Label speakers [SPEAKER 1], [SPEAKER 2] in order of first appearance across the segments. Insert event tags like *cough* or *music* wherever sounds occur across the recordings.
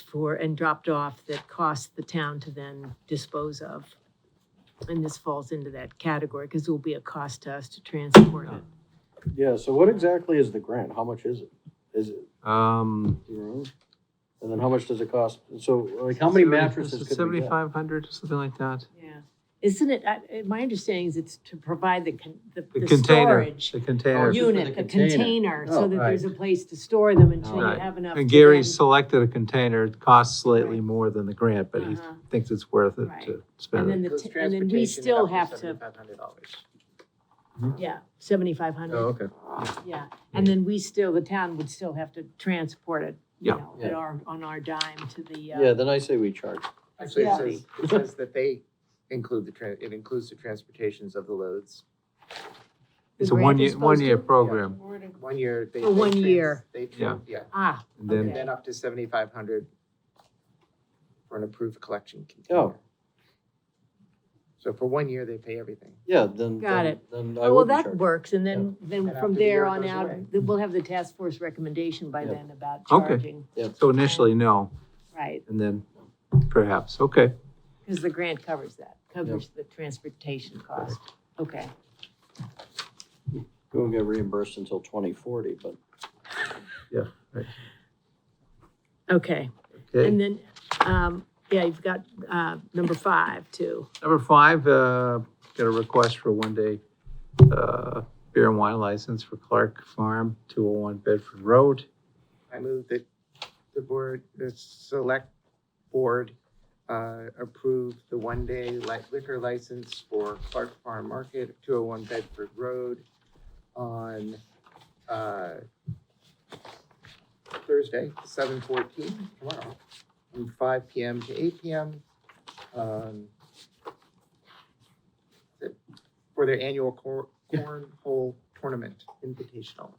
[SPEAKER 1] for, and dropped off that cost the town to then dispose of. And this falls into that category, because it will be a cost to us to transport it.
[SPEAKER 2] Yeah, so what exactly is the grant? How much is it? Is it,
[SPEAKER 3] Um,
[SPEAKER 2] do you know? And then how much does it cost? So like, how many mattresses could we get?
[SPEAKER 3] Seventy-five hundred, something like that.
[SPEAKER 1] Yeah. Isn't it, I- I- my understanding is it's to provide the, con- the
[SPEAKER 3] The
[SPEAKER 1] the
[SPEAKER 3] container,
[SPEAKER 1] storage
[SPEAKER 3] the container.
[SPEAKER 2] Oh, you-
[SPEAKER 1] unit,
[SPEAKER 2] the
[SPEAKER 1] the
[SPEAKER 2] container.
[SPEAKER 1] container,
[SPEAKER 2] Oh,
[SPEAKER 1] so that
[SPEAKER 3] right.
[SPEAKER 1] there's a place to store them until you
[SPEAKER 3] Right.
[SPEAKER 1] have enough.
[SPEAKER 3] And
[SPEAKER 1] to
[SPEAKER 3] Gary
[SPEAKER 1] then-
[SPEAKER 3] selected a container, it costs slightly
[SPEAKER 1] Right.
[SPEAKER 3] more than the grant, but he
[SPEAKER 1] Uh-huh.
[SPEAKER 3] thinks it's worth it
[SPEAKER 1] Right.
[SPEAKER 3] to
[SPEAKER 1] And
[SPEAKER 3] spend
[SPEAKER 1] then
[SPEAKER 3] it.
[SPEAKER 1] the, t- and then we still have to, yeah, seventy-five hundred,
[SPEAKER 3] okay.
[SPEAKER 2] Oh.
[SPEAKER 1] yeah. And then we still, the town would still have to transport it, you
[SPEAKER 3] Yeah.
[SPEAKER 1] know, at
[SPEAKER 2] Yeah.
[SPEAKER 1] our, on our dime to the,
[SPEAKER 2] Yeah,
[SPEAKER 1] uh,
[SPEAKER 2] then I say we charge.
[SPEAKER 4] Actually,
[SPEAKER 1] Yeah.
[SPEAKER 4] it says, it says that they include the, tran- it includes the transportations of the loads.
[SPEAKER 3] It's
[SPEAKER 1] The
[SPEAKER 3] a
[SPEAKER 1] grant is
[SPEAKER 3] one-year,
[SPEAKER 1] supposed
[SPEAKER 3] one-year
[SPEAKER 1] to-
[SPEAKER 3] program,
[SPEAKER 4] One year, they.
[SPEAKER 1] For
[SPEAKER 4] they
[SPEAKER 1] one
[SPEAKER 4] trans-
[SPEAKER 1] year.
[SPEAKER 4] They,
[SPEAKER 3] Yeah.
[SPEAKER 4] tran- yeah,
[SPEAKER 1] ah,
[SPEAKER 3] and then,
[SPEAKER 4] and then up to seventy-five hundred for an approved collection
[SPEAKER 2] Oh.
[SPEAKER 4] container. So for one year, they pay everything.
[SPEAKER 2] Yeah, then.
[SPEAKER 1] Got
[SPEAKER 2] then-
[SPEAKER 1] it.
[SPEAKER 2] Then I
[SPEAKER 1] Oh, well,
[SPEAKER 2] would be
[SPEAKER 1] that
[SPEAKER 2] charged.
[SPEAKER 1] works, and then, then
[SPEAKER 4] And
[SPEAKER 1] from
[SPEAKER 4] after the
[SPEAKER 1] there
[SPEAKER 4] year
[SPEAKER 1] on
[SPEAKER 4] goes
[SPEAKER 1] out,
[SPEAKER 4] away.
[SPEAKER 1] th- we'll have the task force recommendation by
[SPEAKER 2] Yeah.
[SPEAKER 1] then about
[SPEAKER 3] Okay.
[SPEAKER 1] charging,
[SPEAKER 3] so initially, no,
[SPEAKER 1] right?
[SPEAKER 3] and then perhaps, okay.
[SPEAKER 1] Because the grant covers that, covers the transportation cost, okay.
[SPEAKER 2] We won't get reimbursed until twenty forty, but
[SPEAKER 1] Okay,
[SPEAKER 3] Okay.
[SPEAKER 1] and then, um, yeah, you've got, uh, number five too.
[SPEAKER 3] Number five, uh, got a request for one-day uh, beer and wine license for Clark Farm, 201 Bedford Road.
[SPEAKER 4] I move that the board, the select board, uh, approve the one-day light liquor license for Clark Farm Market, two oh one Bedford Road on, uh, Thursday, seven fourteen, tomorrow, from five P M to eight P M. Um, the- for their annual cor- cornhole tournament invitational.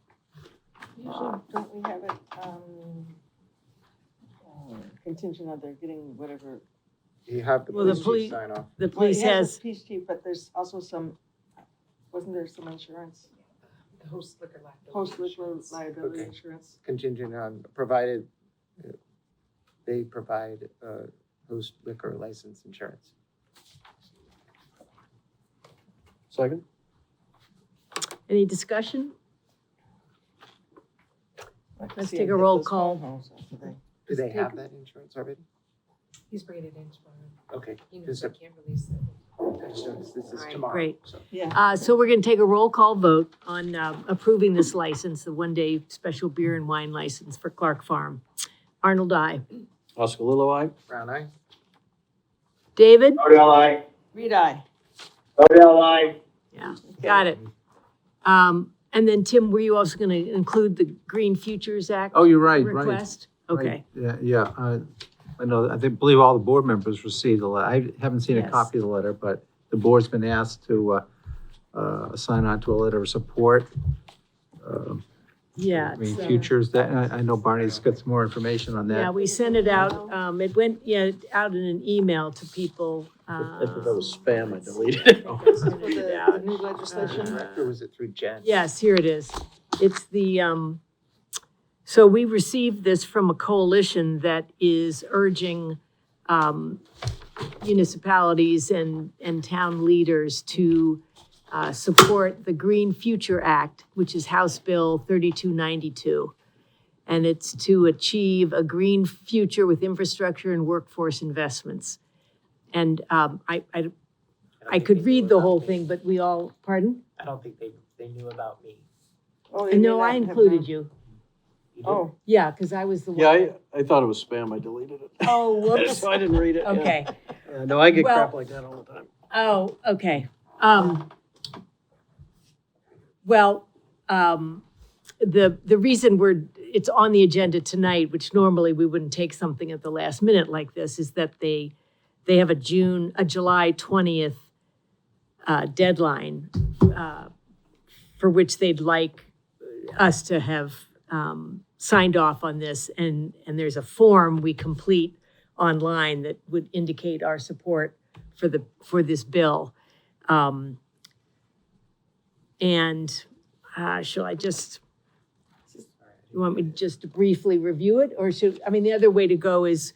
[SPEAKER 5] Usually, don't we have it, um, uh, contingent on their getting whatever.
[SPEAKER 4] Do you have the
[SPEAKER 1] Well, the
[SPEAKER 4] police
[SPEAKER 1] police-
[SPEAKER 4] chief sign off?
[SPEAKER 1] The
[SPEAKER 5] Well, it
[SPEAKER 1] police has,
[SPEAKER 5] a Police chief, but there's also some, wasn't there some insurance,
[SPEAKER 6] The host liquor liability.
[SPEAKER 5] host liquor liability
[SPEAKER 4] Okay.
[SPEAKER 5] insurance?
[SPEAKER 4] contingent on, provided uh, they provide uh, host liquor license insurance.
[SPEAKER 2] second?
[SPEAKER 1] any discussion?
[SPEAKER 5] I can
[SPEAKER 1] Let's
[SPEAKER 5] see
[SPEAKER 1] take
[SPEAKER 5] him
[SPEAKER 1] a
[SPEAKER 5] hit
[SPEAKER 1] roll
[SPEAKER 5] those
[SPEAKER 1] call.
[SPEAKER 5] phone calls after they-
[SPEAKER 4] Do they
[SPEAKER 1] Just
[SPEAKER 4] have
[SPEAKER 1] take-
[SPEAKER 4] that insurance already?
[SPEAKER 6] He's bringing it in tomorrow.
[SPEAKER 4] Okay,
[SPEAKER 6] He knows
[SPEAKER 4] just,
[SPEAKER 6] I
[SPEAKER 4] a-
[SPEAKER 6] can't release it.
[SPEAKER 4] I just noticed this is
[SPEAKER 1] Alright,
[SPEAKER 4] tomorrow.
[SPEAKER 1] great.
[SPEAKER 4] so.
[SPEAKER 5] Yeah,
[SPEAKER 1] Uh, so we're gonna take a roll call vote on, uh, approving this license, the one-day special beer and wine license for Clark Farm. Arnold, I.
[SPEAKER 2] Oscalillo, aye?
[SPEAKER 4] Brown eye?
[SPEAKER 1] David?
[SPEAKER 5] read I.
[SPEAKER 1] Yeah,
[SPEAKER 5] *laughs*
[SPEAKER 1] got it. Um, and then Tim, were you also gonna include the Green Futures Act?
[SPEAKER 3] Oh, you're right, right.
[SPEAKER 1] Request? Okay,
[SPEAKER 3] Right, Yeah, yeah, uh, I know, I think, believe all the board members received the letter. I haven't seen a
[SPEAKER 1] Yes.
[SPEAKER 3] copy of the letter, but the board's been asked to, uh, uh, sign on to a letter of support. uh,
[SPEAKER 1] yeah.
[SPEAKER 3] I
[SPEAKER 1] it's,
[SPEAKER 3] mean,
[SPEAKER 1] uh,
[SPEAKER 3] futures, that, I, I know Barney's got some more information on
[SPEAKER 1] Yeah,
[SPEAKER 3] that.
[SPEAKER 1] we sent it out, um, it went, yeah, out in an email to people.
[SPEAKER 2] I thought that was
[SPEAKER 1] uh,
[SPEAKER 2] spam, I deleted it.
[SPEAKER 5] This is for the-
[SPEAKER 1] Yeah.
[SPEAKER 5] the new
[SPEAKER 4] Or
[SPEAKER 5] legislation.
[SPEAKER 4] direct, or was it through Jen?
[SPEAKER 1] Yes, here it is. It's the, um, so we received this from a coalition that is urging, um, municipalities and, and town leaders to, uh, support the Green Future Act, which is House Bill thirty-two ninety-two. And it's to achieve a green future with infrastructure and workforce investments. And, um, I, I,
[SPEAKER 4] don't
[SPEAKER 1] I
[SPEAKER 4] think they
[SPEAKER 1] could
[SPEAKER 4] knew
[SPEAKER 1] read the
[SPEAKER 4] about
[SPEAKER 1] whole
[SPEAKER 4] me.
[SPEAKER 1] thing, but we all, pardon?
[SPEAKER 4] I don't think they, they knew about me.
[SPEAKER 5] Oh, they may
[SPEAKER 1] No, I
[SPEAKER 5] not have
[SPEAKER 1] included
[SPEAKER 5] known.
[SPEAKER 1] you.
[SPEAKER 4] You didn't?
[SPEAKER 5] Oh,
[SPEAKER 1] Yeah, because I was the one.
[SPEAKER 2] Yeah, I, I thought it was spam, I deleted it. *laughs*
[SPEAKER 1] Oh, whoops.
[SPEAKER 2] So I didn't read it. yeah.
[SPEAKER 1] Okay.
[SPEAKER 2] Yeah, No, I get
[SPEAKER 1] Well-
[SPEAKER 2] crap like that all the time.
[SPEAKER 1] Oh, okay. Um, well, um, the, the reason we're, it's on the agenda tonight, which normally we wouldn't take something at the last minute like this, is that they, they have a June, a July 20th uh, deadline uh, for which they'd like us to have um, signed off on this. And, and there's a form we complete online that would indicate our support for the, for this bill. Um, And uh, shall I just, you want me to just briefly review it? Or should, I mean, the other way to go is